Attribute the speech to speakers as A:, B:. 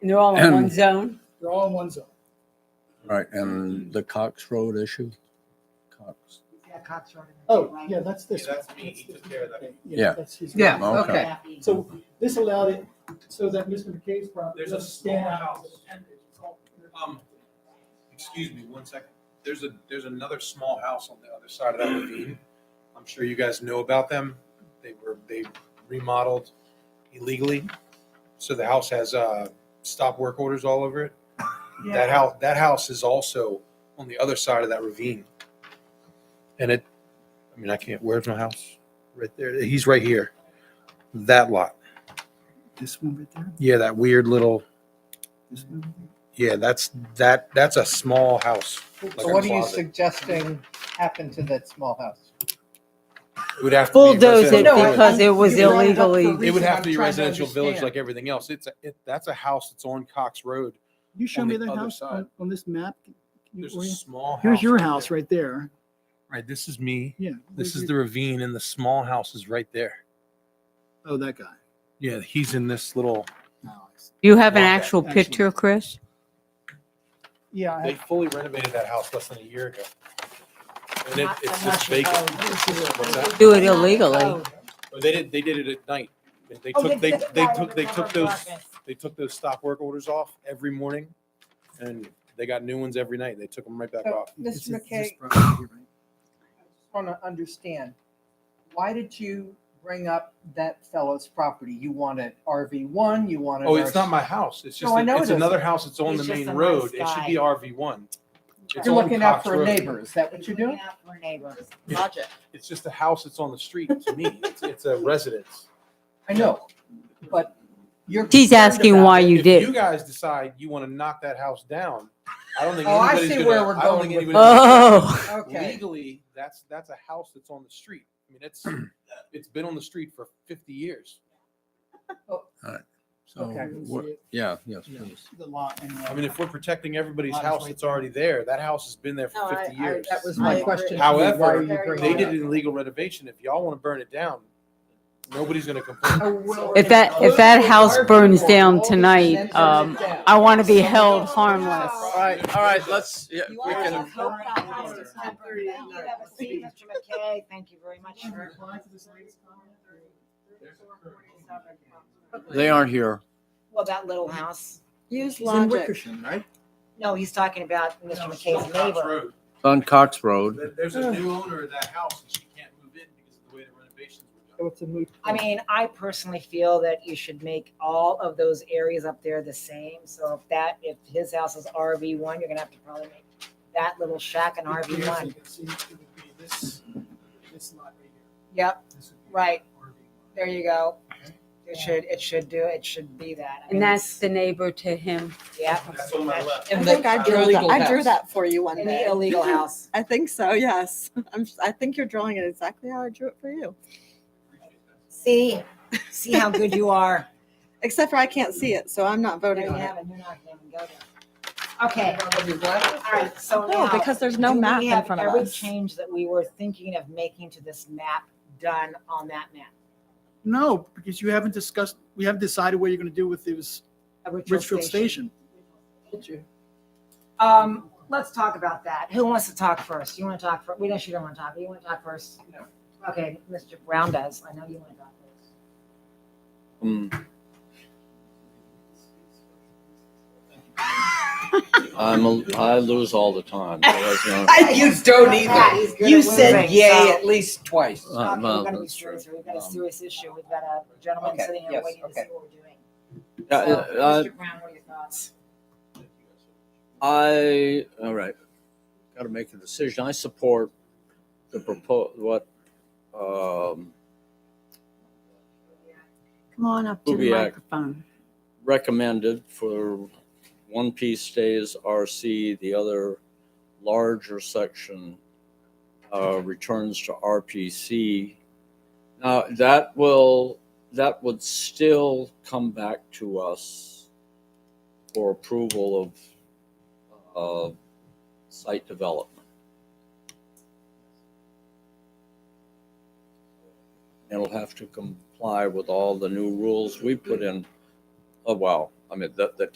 A: And they're all in one zone?
B: They're all in one zone.
C: Right, and the Cox Road issue? Cox.
D: Yeah, Cox Road.
B: Oh, yeah, that's this.
E: Yeah,
B: one.
E: that's me. He took care of that.
C: Yeah.
B: that's his-
D: Yeah,
C: Okay.
D: okay.
B: So this allowed it, so that Mr. McKay's property.
E: There's a
B: doesn't
E: small
B: stand out.
E: house. Um, excuse me one second. There's a, there's another small house on the other side of that ravine. I'm sure you guys know about them. They were, they remodeled illegally. So the house has, uh, stop work orders all over it. That house, that house is also on the other side of that ravine. And it, I mean, I can't, where's my house? Right there. He's right here. That lot.
F: This one right there?
E: Yeah, that weird little
F: This one?
E: Yeah, that's that. That's a small house.
G: So what are you
E: closet.
G: suggesting happened to that small house?
E: It would have to be
A: Bulldoze it
E: residential village.
A: because it was
B: You brought it up
A: illegally.
B: for
E: It would
B: reason.
E: have to be
B: I'm trying
E: residential village
B: understand.
E: like everything else. It's a, it, that's a house that's on Cox Road.
F: You show
E: On
F: me
E: the
F: that
E: other
F: house
E: side.
F: on, on this map? Can you
E: There's a
F: orient-
E: small house.
F: Here's your house
E: there.
F: right there.
E: Right. This is me.
F: Yeah.
E: This
F: Where's
E: is the
F: your-
E: ravine, and the small house is right there.
F: Oh, that guy.
E: Yeah, he's in this little.
F: Oh, I see.
A: You have an
E: Okay,
A: actual
F: actually.
A: picture, Chris?
B: Yeah, I-
E: They fully renovated that house less than a year ago, and it,
D: Not-
E: it's
D: not
E: just
D: the
E: vacant.
D: code.
E: What's that?
A: Do it illegally.
E: But They did. They did it at night. They- They
D: Oh,
E: took. They
D: did that
E: they
D: in
E: took. They took
D: Robert
E: those.
D: Marcus.
E: they took those stop work orders off every morning and they got new ones every night. They took them right back
G: So,
E: off.
F: This
G: Mr.
F: is- this
G: McKay,
F: property here, right?
G: I just want to understand, why did you bring up that fellow's property? You want an RV one, you want an
E: Oh, it's
G: RC
E: not my house. It's just,
G: No, I
E: a-
G: know
E: it's
G: it
E: another house. It's on
D: He's
E: the
D: just
E: main
D: a nice
E: road. It should
D: guy.
E: be RV one. It's
G: You're
E: on
G: looking out
E: Cox
G: for a
E: Road.
G: neighbor, is that what you're doing?
D: Looking out for a neighbor.
E: Yeah.
D: Logic.
E: It's just a house that's on the street to me. It's, it's a residence.
G: I know, but you're.
A: He's
G: concerned
A: asking
G: about
A: why
G: it.
A: you
E: If
A: did.
E: You guys decide you want to knock that house down. I don't think
G: Oh, I
E: anybody's
G: see
E: gonna-
G: where we're
E: I don't
G: going
E: think
G: with
E: anybody's gonna-
A: Oh,
G: Okay,
E: Legally, that's, that's a house that's on the street. I mean, it's, it's been on the street for fifty years.
C: So,
G: Okay.
F: Oh,
C: what- yeah, yes,
F: Yeah.
C: please.
F: The lot and the-
E: I mean, if we're protecting everybody's
F: Lot is
E: house
F: right
E: that's
F: there.
E: already there, that house has been there
D: No,
E: for
D: I-
E: fifty
D: I-
E: years.
G: that was my
D: I-
G: question. to you. Why
E: However,
G: are you bringing
E: They
G: it
E: did
G: up?
E: an illegal renovation. If y'all want to burn it down, nobody's gonna complain.
G: I will-
A: If that- if that house burns down
G: All the
A: tonight,
G: percentages
A: um,
G: down.
A: I want to be held harmless.
C: All right, all right, let's, yeah, we
D: You are
C: can,
D: so hope that house is not burned down. You have a seat, Mr. McKay. Thank you very much for.
G: Mm-hmm.
C: they aren't here.
D: Well, that little house.
A: Use
F: He's in Wickersham, right?
D: No, he's talking about Mr. McKay's neighbor.
C: It's on Cox Road.
E: There's a new owner of that house and she can't move in because of the way the renovations were done.
F: So it's a moot.
D: I
F: point.
D: mean, I personally feel that you should make all of those areas up there the same. So if that, if his house is RV one, you're gonna have to probably make that little shack an RV
B: Here's-
D: one.
B: you can see it would be This, this lot right here.
D: Yep,
B: This would be
D: Right.
B: RV lot.
D: there you go. It should, it should do, it should be that. I mean,
A: And that's the neighbor to him.
D: Yeah.
E: That's on my left.
H: I
G: And
H: think
G: the-
H: I
G: the
H: drew that.
G: illegal
H: I drew
G: house.
H: that for you one
D: In
H: day.
D: the illegal house.
H: I think so. Yes, I'm. s- I think you're drawing it exactly how I drew it for you.
D: See, see how good you are.
H: Except for I can't see it, so I'm not
D: There you
H: voting on it.
D: have it. You're not gonna even go there. Okay, all right, so
H: No,
D: now.
H: Oh, because there's no
D: do we
H: map in
D: have
H: front of
D: Every
H: us.
D: change that we were thinking of making to this map done on that map.
F: No, because you haven't discussed, we haven't decided what you're gonna do with this
D: A
F: Richfield Station.
D: Um, let's talk about that. Who wants to talk first? You want to talk first? We know she don't want to talk. You want to talk first?
F: No.
D: Okay, Mr. Brown does. I know you want to talk first.
C: Um, I'm, a- I lose all the time. so that's not-
G: You don't
D: Yeah, he's good at losing, so-
G: least twice.
C: Uh,
D: Okay,
C: well,
D: we're gonna be
C: that's true.
D: serious here. We've got a
C: Um,
D: serious issue. We've got a gentleman
G: Okay,
D: sitting here
G: yes,
D: waiting to
G: okay.
D: see what we're doing.
C: Uh,
D: So,
C: uh,
D: Mr. Brown, what are your thoughts?
C: I, all right, got to make a decision. I support the propos, what, um,
H: Come on up to the
C: Kubiak.
H: microphone.
C: recommended for one piece stays RC, the other larger section uh, returns to RPC. Now, that will, that would still come back to us for approval of uh, site development. It'll have to comply with all the new rules we put in. Oh, wow. I mean, the, the